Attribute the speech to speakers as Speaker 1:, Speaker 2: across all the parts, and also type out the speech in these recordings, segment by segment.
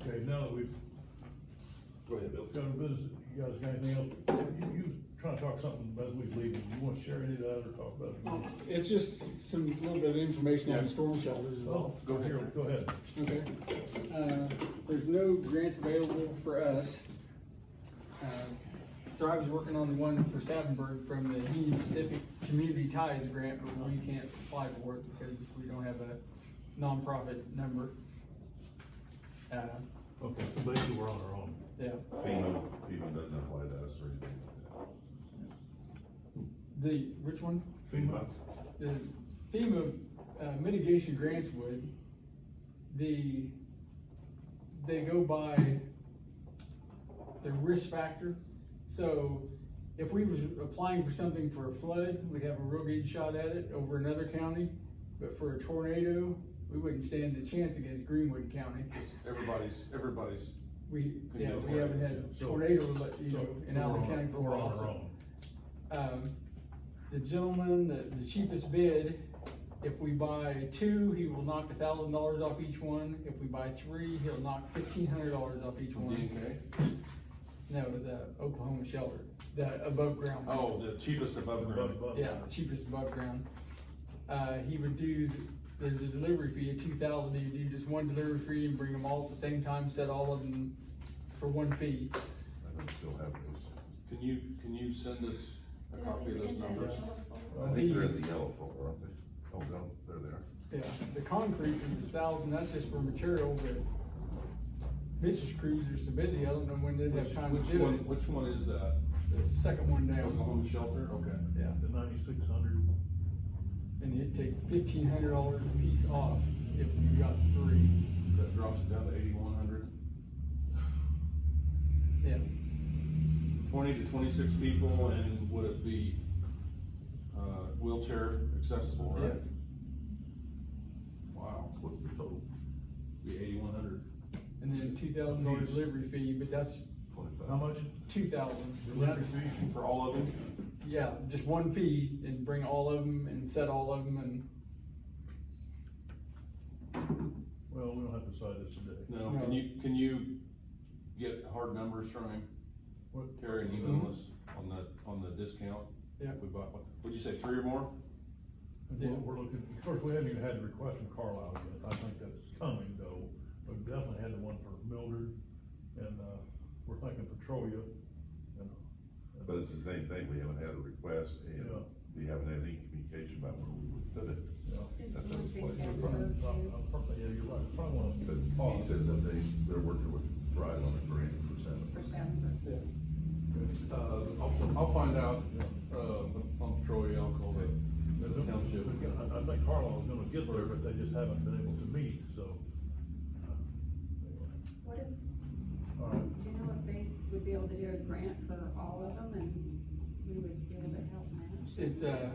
Speaker 1: Okay, now that we've
Speaker 2: Go ahead, Bill.
Speaker 1: gone to business, you guys got anything else? You, you was trying to talk something as we leave, you wanna share any of that or talk about it?
Speaker 3: It's just some, little bit of information on
Speaker 2: Yeah.
Speaker 3: the storm shelters. is
Speaker 1: Oh,
Speaker 3: all.
Speaker 1: go here, go ahead.
Speaker 3: Okay. Uh, There's no grants available for us. Uh, So I was working on the one for Savinburg from the Union Pacific Community Ties Grant, but we can't apply for it because we don't have a nonprofit number. Uh,
Speaker 1: Okay, so basically we're on our own.
Speaker 3: Yeah,
Speaker 4: FEMA, FEMA doesn't apply to us or anything like
Speaker 3: the, which one?
Speaker 1: FEMA,
Speaker 3: The FEMA uh, mitigation grants would, the, they go by the risk factor. So if we was applying for something for a flood, we'd have a real good shot at it over another county. But for a tornado, we wouldn't stand a chance against Greenwood County.
Speaker 4: that. Everybody's, everybody's,
Speaker 3: We,
Speaker 4: Could
Speaker 3: yeah,
Speaker 4: go
Speaker 3: we haven't had
Speaker 1: so-
Speaker 3: tornado, you
Speaker 1: so
Speaker 3: know, in
Speaker 1: we're
Speaker 3: Allen
Speaker 1: on-
Speaker 3: County for a while.
Speaker 1: We're on
Speaker 3: so-
Speaker 1: our own.
Speaker 3: um, the gentleman, the, the cheapest bid, if we buy two, he will knock a thousand dollars off each one. If we buy three, he'll knock fifteen hundred dollars off each one.
Speaker 4: okay?
Speaker 3: No, the Oklahoma shelter, the above ground. one.
Speaker 4: Oh, the cheapest above ground.
Speaker 1: Above-
Speaker 3: Yeah, cheapest above ground. Uh, he would do, there's a delivery fee of two thousand, he'd do just one delivery fee and bring them all at the same time, set all of them for one fee.
Speaker 4: I don't still have those. Can you, can you send us a copy of those numbers?
Speaker 1: I
Speaker 2: I think
Speaker 3: The-
Speaker 2: they're in the yellow folder, aren't they? Oh, no, they're there.
Speaker 3: Yeah, the concrete is a thousand, that's just for material, but Mitch's crews are so busy, I don't know when they'd
Speaker 4: Which,
Speaker 3: have time to
Speaker 4: which
Speaker 3: do
Speaker 4: one,
Speaker 3: it.
Speaker 4: which one is that?
Speaker 3: The second one
Speaker 4: Oklahoma
Speaker 3: down,
Speaker 4: shelter, okay.
Speaker 3: yeah,
Speaker 1: The ninety-six hundred,
Speaker 3: and it'd take fifteen hundred dollars a piece off if you got three,
Speaker 4: That drops it down to eighty-one hundred.
Speaker 3: yeah.
Speaker 4: Twenty to twenty-six people and would it be, uh, wheelchair accessible, right?
Speaker 3: Yes.
Speaker 4: Wow,
Speaker 2: What's the total?
Speaker 4: be eighty-one hundred.
Speaker 3: And then two thousand dollar
Speaker 1: Yes.
Speaker 3: delivery fee, but that's
Speaker 2: Twenty-five.
Speaker 1: how much?
Speaker 3: two thousand,
Speaker 1: Delivery
Speaker 3: that's,
Speaker 1: fee?
Speaker 4: For all of them?
Speaker 3: yeah, just one fee and bring all of them and set all of them and,
Speaker 1: Well, we don't have to decide this today.
Speaker 4: No,
Speaker 3: No.
Speaker 4: can you, can you get hard numbers from him?
Speaker 1: What?
Speaker 4: Terry, and email us on the, on the discount?
Speaker 3: Yeah.
Speaker 4: If we bought one, what'd you say, three or more?
Speaker 1: And we're, we're looking, of course, we haven't even had the request from Carlisle yet, I think that's coming though, we definitely had the one for Mildred, and, uh, we're thinking Petrolia, and.
Speaker 2: But it's the same thing, we haven't had a request, and
Speaker 1: Yeah.
Speaker 2: we haven't had any communication about where we would put it.
Speaker 1: Yeah.
Speaker 5: And
Speaker 2: That's
Speaker 5: so once
Speaker 2: the
Speaker 5: they
Speaker 2: place
Speaker 5: send
Speaker 2: we're
Speaker 5: it over
Speaker 2: going.
Speaker 1: Uh,
Speaker 5: to-
Speaker 1: probably- Yeah, you're right, probably want to.
Speaker 2: But he said that they, they're working with Thrive on a grant for seven.
Speaker 5: for Saturday.
Speaker 4: Uh, I'll, I'll find out, uh, on Troy, I'll call the, the township.
Speaker 1: uh, I, I think Carlisle's gonna get there, but they just haven't been able to meet, so. uh,
Speaker 5: What if, do
Speaker 1: All right,
Speaker 5: you know if they would be able to do a grant for all of them and we would be able to help manage?
Speaker 3: it's, uh,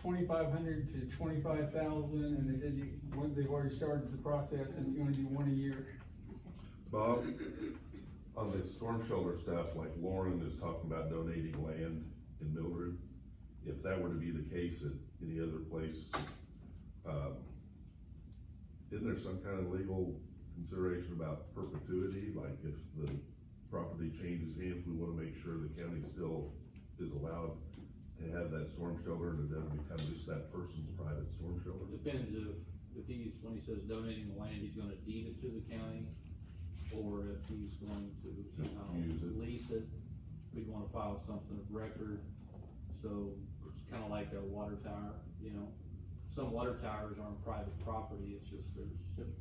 Speaker 3: twenty-five hundred to twenty-five thousand, and they said you, one, they've already started the process, and you only do one a year.
Speaker 2: Bob, on the storm shelter stuff, like Lauren is talking about donating land in Mildred, if that were to be the case at any other place, um, isn't there some kind of legal consideration about perpetuity, like if the property changes hands, we wanna make sure the county still is allowed to have that storm shelter, and it doesn't become just that person's private storm shelter?
Speaker 6: Depends if, if he's, when he says donating the land, he's gonna deed it to the county, or if he's going to somehow
Speaker 2: Use it.
Speaker 6: lease it, we'd wanna file something of record, so it's kinda like a water tower, you know? Some water towers aren't private property, it's just there's,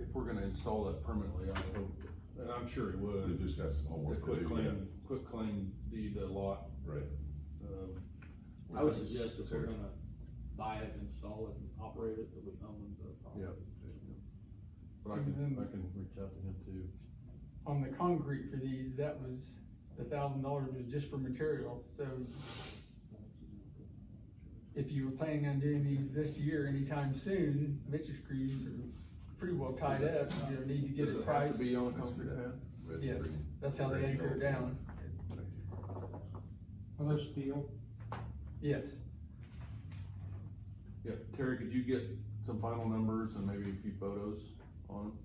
Speaker 4: If we're gonna install that permanently, I hope, and I'm sure he
Speaker 2: We've
Speaker 4: would.
Speaker 2: just got some
Speaker 4: The
Speaker 2: homework to
Speaker 4: quick
Speaker 2: do, yeah,
Speaker 4: claim, quick claim deed a lot,
Speaker 2: right?
Speaker 4: um.
Speaker 6: I would suggest if we're
Speaker 2: Terry.
Speaker 6: gonna buy it, install it, and operate it, that we own the property.
Speaker 4: Yeah. But I can, I can reach out to him too.
Speaker 3: On the concrete for these, that was, the thousand dollars was just for material, so if you were planning on doing these this year anytime soon, Mitch's crews are pretty well tied up, you know, need to get
Speaker 4: Does
Speaker 3: a
Speaker 4: it have
Speaker 3: price.
Speaker 4: to be on
Speaker 2: Let's do
Speaker 4: concrete
Speaker 2: that.
Speaker 4: pad?
Speaker 2: Red,
Speaker 3: Yes,
Speaker 2: green.
Speaker 3: that's how they anchor it down,
Speaker 7: How much steel?
Speaker 3: yes.
Speaker 4: Yeah, Terry, could you get some final numbers and maybe a few photos on them?